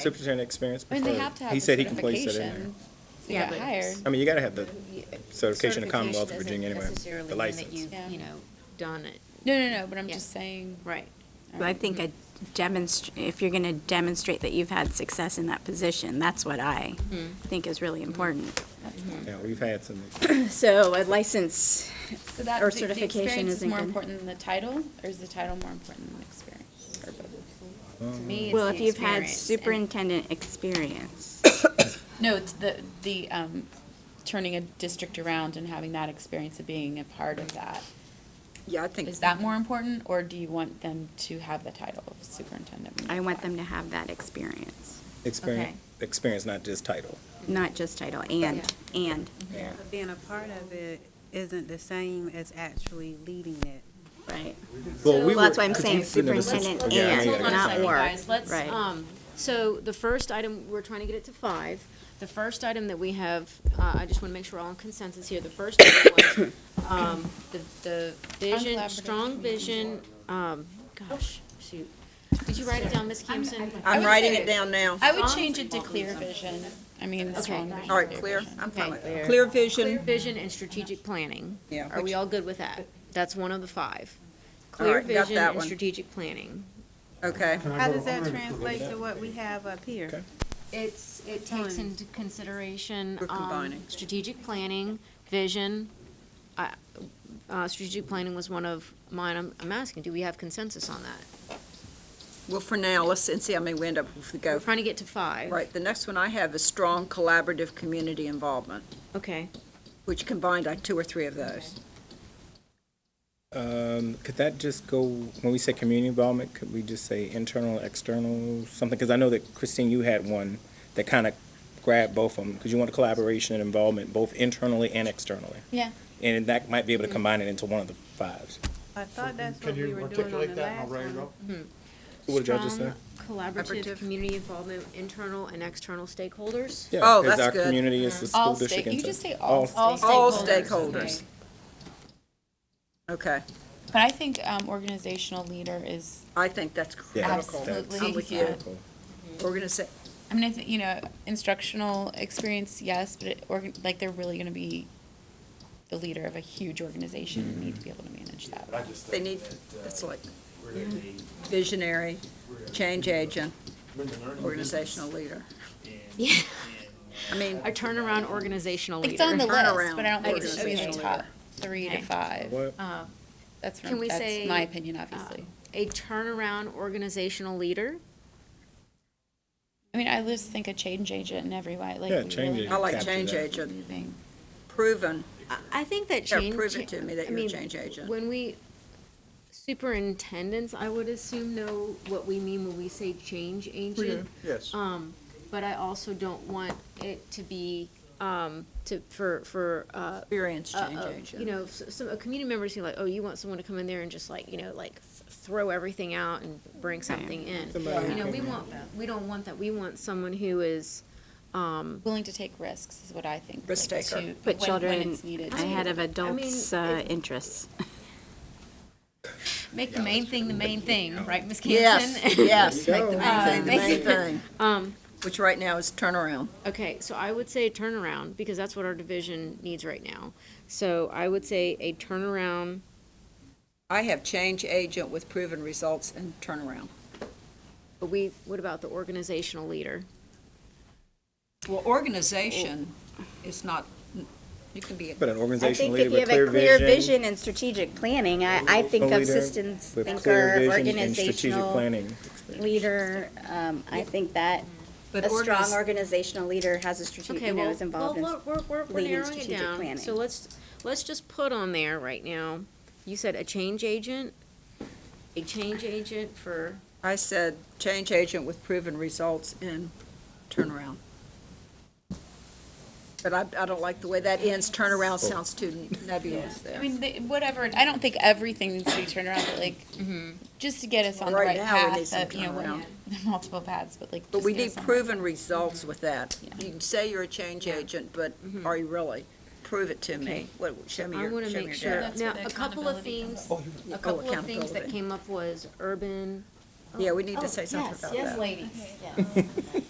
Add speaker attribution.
Speaker 1: superintendent experience
Speaker 2: I mean,
Speaker 1: before.
Speaker 2: they have to have
Speaker 1: He
Speaker 2: the
Speaker 1: said he can place it in there.
Speaker 2: certification. to
Speaker 3: Yeah,
Speaker 2: get
Speaker 3: but-
Speaker 2: hired.
Speaker 1: I mean, you gotta have the
Speaker 3: Y-
Speaker 1: certification of Commonwealth of
Speaker 3: doesn't
Speaker 1: Virginia anyway,
Speaker 3: necessarily
Speaker 1: the
Speaker 3: mean that
Speaker 1: license.
Speaker 3: you've,
Speaker 2: Yeah.
Speaker 3: you know, done it,
Speaker 2: No, no, no, but I'm
Speaker 3: Yeah.
Speaker 2: just saying.
Speaker 3: right.
Speaker 4: But I think a demonstr, if you're going to demonstrate that you've had success in that position, that's what I
Speaker 2: Hmm.
Speaker 4: think is really important.
Speaker 1: Yeah, we've had some,
Speaker 2: Hmm.
Speaker 4: So a license,
Speaker 2: So that,
Speaker 4: Or
Speaker 2: the- the
Speaker 4: certification
Speaker 2: experience is
Speaker 4: isn't
Speaker 2: more
Speaker 4: good.
Speaker 2: important than the title, or is the title more important than the experience? Or
Speaker 1: Oh.
Speaker 2: both? To me, it's
Speaker 4: well,
Speaker 2: the
Speaker 4: if you've had
Speaker 2: experience and-
Speaker 4: superintendent experience,
Speaker 2: No, it's the, the, um, turning a district around and having that experience of being a part of that.
Speaker 5: Yeah, I think.
Speaker 2: Is that more important, or do you want them to have the title of superintendent? when they
Speaker 4: I want
Speaker 2: apply?
Speaker 4: them to have that experience,
Speaker 1: experience,
Speaker 2: Okay.
Speaker 1: experience, not just title.
Speaker 4: not just title, and, and.
Speaker 1: Yeah.
Speaker 6: But being a part of it isn't the same as actually leading it.
Speaker 4: Right.
Speaker 1: Well,
Speaker 3: So-
Speaker 1: we
Speaker 4: Well, that's
Speaker 1: were-
Speaker 4: why I'm
Speaker 1: I
Speaker 4: saying
Speaker 1: think we never said-
Speaker 4: superintendent
Speaker 1: Yeah, I
Speaker 4: and,
Speaker 1: mean, I guess-
Speaker 4: not
Speaker 3: Hold
Speaker 4: or.
Speaker 3: on a second, guys,
Speaker 4: right.
Speaker 3: let's, um, so the first item, we're trying to get it to five. The first item that we have, uh, I just want to make sure we're all in consensus here. The first item was, um, the, the vision,
Speaker 2: Uncollaborative
Speaker 3: strong vision, um, gosh, shoot. Did you write it down, Ms. Campson?
Speaker 2: would
Speaker 5: I'm writing
Speaker 2: say-
Speaker 5: it down now.
Speaker 2: I would change it to clear vision. I mean,
Speaker 3: Okay.
Speaker 2: strong vision.
Speaker 5: All right, clear? I'm
Speaker 3: Okay.
Speaker 5: fine with that. Clear
Speaker 3: Clear
Speaker 5: vision.
Speaker 3: vision and strategic planning.
Speaker 5: Yeah,
Speaker 3: Are we
Speaker 5: which-
Speaker 3: all good with that? That's one of the five.
Speaker 5: All
Speaker 3: Clear
Speaker 5: right, got
Speaker 3: vision
Speaker 5: that
Speaker 3: and
Speaker 5: one.
Speaker 3: strategic planning.
Speaker 5: Okay.
Speaker 6: How does that translate to what we have up here?
Speaker 3: It's, it takes into consideration,
Speaker 5: We're
Speaker 3: um,
Speaker 5: combining.
Speaker 3: strategic planning, vision. I- Uh, strategic planning was one of mine. I'm, I'm asking, do we have consensus on that?
Speaker 5: Well, for now, let's, and see how many we end up with, we
Speaker 3: We're
Speaker 5: go.
Speaker 3: trying to get to five.
Speaker 5: Right, the next one I have is strong collaborative community involvement,
Speaker 3: Okay.
Speaker 5: which combined like two or three of those.
Speaker 1: Um, could that just go, when we say community involvement, could we just say internal, external, something? Because I know that Christine, you had one that kind of grabbed both of them, because you want collaboration and involvement both internally and externally.
Speaker 2: Yeah.
Speaker 1: And that might be able to combine it into one of the fives.
Speaker 6: I thought that's what
Speaker 7: Can
Speaker 6: we
Speaker 7: you
Speaker 6: were doing on
Speaker 7: articulate
Speaker 6: the
Speaker 7: that and I'll
Speaker 6: last
Speaker 7: write it
Speaker 6: one.
Speaker 7: up?
Speaker 1: What did y'all just say?
Speaker 3: Strong Collaborative,
Speaker 5: Collaborative.
Speaker 3: community involvement, internal and external stakeholders.
Speaker 1: Yeah,
Speaker 5: Oh,
Speaker 1: 'cause
Speaker 5: that's
Speaker 1: our
Speaker 5: good.
Speaker 1: community is the school
Speaker 2: All
Speaker 1: district.
Speaker 2: stake, you
Speaker 1: and so-
Speaker 2: just say all stakeholders.
Speaker 5: All
Speaker 2: okay.
Speaker 5: stakeholders. Okay,
Speaker 2: But I think um, organizational leader is
Speaker 5: I think that's
Speaker 1: Yeah,
Speaker 5: critical.
Speaker 2: absolutely.
Speaker 5: I'm with you.
Speaker 2: yeah.
Speaker 5: We're gonna say,
Speaker 2: I mean, I think, you know, instructional experience, yes, but it, organ- like they're really going to be the leader of a huge organization and need to be able to manage that.
Speaker 7: I just
Speaker 5: they
Speaker 7: think
Speaker 5: need,
Speaker 7: that, uh,
Speaker 5: that's like
Speaker 7: we're gonna need
Speaker 5: visionary, change agent,
Speaker 7: women learning
Speaker 5: organizational leader.
Speaker 7: and-
Speaker 3: Yeah.
Speaker 5: I mean,
Speaker 3: Our turnaround organizational leader.
Speaker 2: It's on the list,
Speaker 5: Turnaround
Speaker 2: but I don't think it should be in the
Speaker 5: organizational
Speaker 2: top
Speaker 5: leader.
Speaker 2: three to
Speaker 3: Okay.
Speaker 2: five. Um,
Speaker 1: What?
Speaker 2: That's,
Speaker 3: Can
Speaker 2: from,
Speaker 3: we
Speaker 2: that's
Speaker 3: say,
Speaker 2: my opinion,
Speaker 3: uh,
Speaker 5: um,
Speaker 2: obviously.
Speaker 3: A turnaround organizational leader.
Speaker 2: I mean, I just think a change agent in every way, like.
Speaker 1: Yeah,
Speaker 2: we really
Speaker 1: change
Speaker 2: need
Speaker 1: agent.
Speaker 5: I
Speaker 2: to
Speaker 5: like
Speaker 1: Capture
Speaker 5: change
Speaker 1: that.
Speaker 5: agent,
Speaker 2: moving.
Speaker 5: proven,
Speaker 3: I- I think that
Speaker 5: Yeah,
Speaker 3: change.
Speaker 5: prove it to me
Speaker 3: I
Speaker 5: that you're a
Speaker 3: mean,
Speaker 5: change agent.
Speaker 3: When we, superintendents, I would assume know what we mean when we say change agent.
Speaker 1: Mm-hmm.
Speaker 7: Yes.
Speaker 3: Um, but I also don't want it to be, um, to, for, for, uh,
Speaker 5: experience
Speaker 3: uh,
Speaker 5: change
Speaker 3: uh,
Speaker 5: agent.
Speaker 3: You know, s- some, a community member's who like, oh, you want someone to come in there and just like, you know, like th- throw everything out and bring something in.
Speaker 1: Somebody
Speaker 3: You
Speaker 1: who
Speaker 3: know, we
Speaker 1: can-
Speaker 3: want, we don't want that. We want someone who is, um,
Speaker 2: Willing to take risks is what I think.
Speaker 5: Risk
Speaker 2: like,
Speaker 5: taker.
Speaker 2: to- when-
Speaker 4: But
Speaker 2: when
Speaker 4: children
Speaker 2: it's needed.
Speaker 4: ahead of
Speaker 3: adults,
Speaker 4: adults'
Speaker 3: uh,
Speaker 4: interests.
Speaker 3: make the main thing the main thing, right, Ms. Campson?
Speaker 5: Yes, yes, make the main
Speaker 3: Uh,
Speaker 5: thing the
Speaker 3: make
Speaker 5: main
Speaker 3: it-
Speaker 5: thing,
Speaker 3: Um,
Speaker 5: which right now is turnaround.
Speaker 3: okay, so I would say turnaround, because that's what our division needs right now. So I would say a turnaround,
Speaker 5: I have change agent with proven results and turnaround.
Speaker 3: but we, what about the organizational leader?
Speaker 5: Well, organization is not, you can be,
Speaker 1: But uh, an
Speaker 4: I
Speaker 1: organizational
Speaker 4: think
Speaker 1: leader
Speaker 4: if you
Speaker 1: with
Speaker 4: have a clear
Speaker 1: vision.
Speaker 4: vision and strategic planning, I, I think
Speaker 1: a
Speaker 4: of
Speaker 1: leader
Speaker 4: systems
Speaker 1: with clear
Speaker 4: thinker,
Speaker 1: vision and strategic
Speaker 4: organizational
Speaker 1: planning.
Speaker 4: leader. Um, I think that
Speaker 5: but
Speaker 4: a strong
Speaker 5: organiz-
Speaker 4: organizational leader has a strategic,
Speaker 3: Okay,
Speaker 4: you know,
Speaker 3: well,
Speaker 4: is involved in.
Speaker 3: well, we're, we're, we're
Speaker 4: leading
Speaker 3: narrowing it
Speaker 4: strategic
Speaker 3: down, so
Speaker 4: planning.
Speaker 3: let's, let's just put on there right now, you said a change agent, a change agent for,
Speaker 5: I said change agent with proven results and turnaround. But I, I don't like the way that ends, turnaround sounds too nebulous
Speaker 2: I
Speaker 5: there.
Speaker 2: mean, they- whatever, I don't think everything needs to be turned around, but like, just to get us on the
Speaker 5: Right
Speaker 2: right
Speaker 5: now, we need
Speaker 2: path,
Speaker 5: some
Speaker 2: of, you know,
Speaker 5: turnaround.
Speaker 2: what- multiple paths, but like.
Speaker 5: But
Speaker 2: just
Speaker 5: we
Speaker 2: get
Speaker 5: need
Speaker 2: us on the-
Speaker 5: proven results with that. You can say you're a change agent, but are you really? Prove it to
Speaker 3: Okay.
Speaker 5: me. What, show me
Speaker 3: I
Speaker 5: your,
Speaker 3: wanna
Speaker 5: show me
Speaker 3: make
Speaker 5: your
Speaker 3: sure,
Speaker 5: data.
Speaker 3: now, a couple of things,
Speaker 4: Oh,
Speaker 3: a couple of things that
Speaker 5: accountability.
Speaker 3: came up was urban.
Speaker 5: Yeah, we need
Speaker 3: Oh,
Speaker 5: to say something
Speaker 3: yes,
Speaker 5: about that.
Speaker 3: Yes, ladies, yes.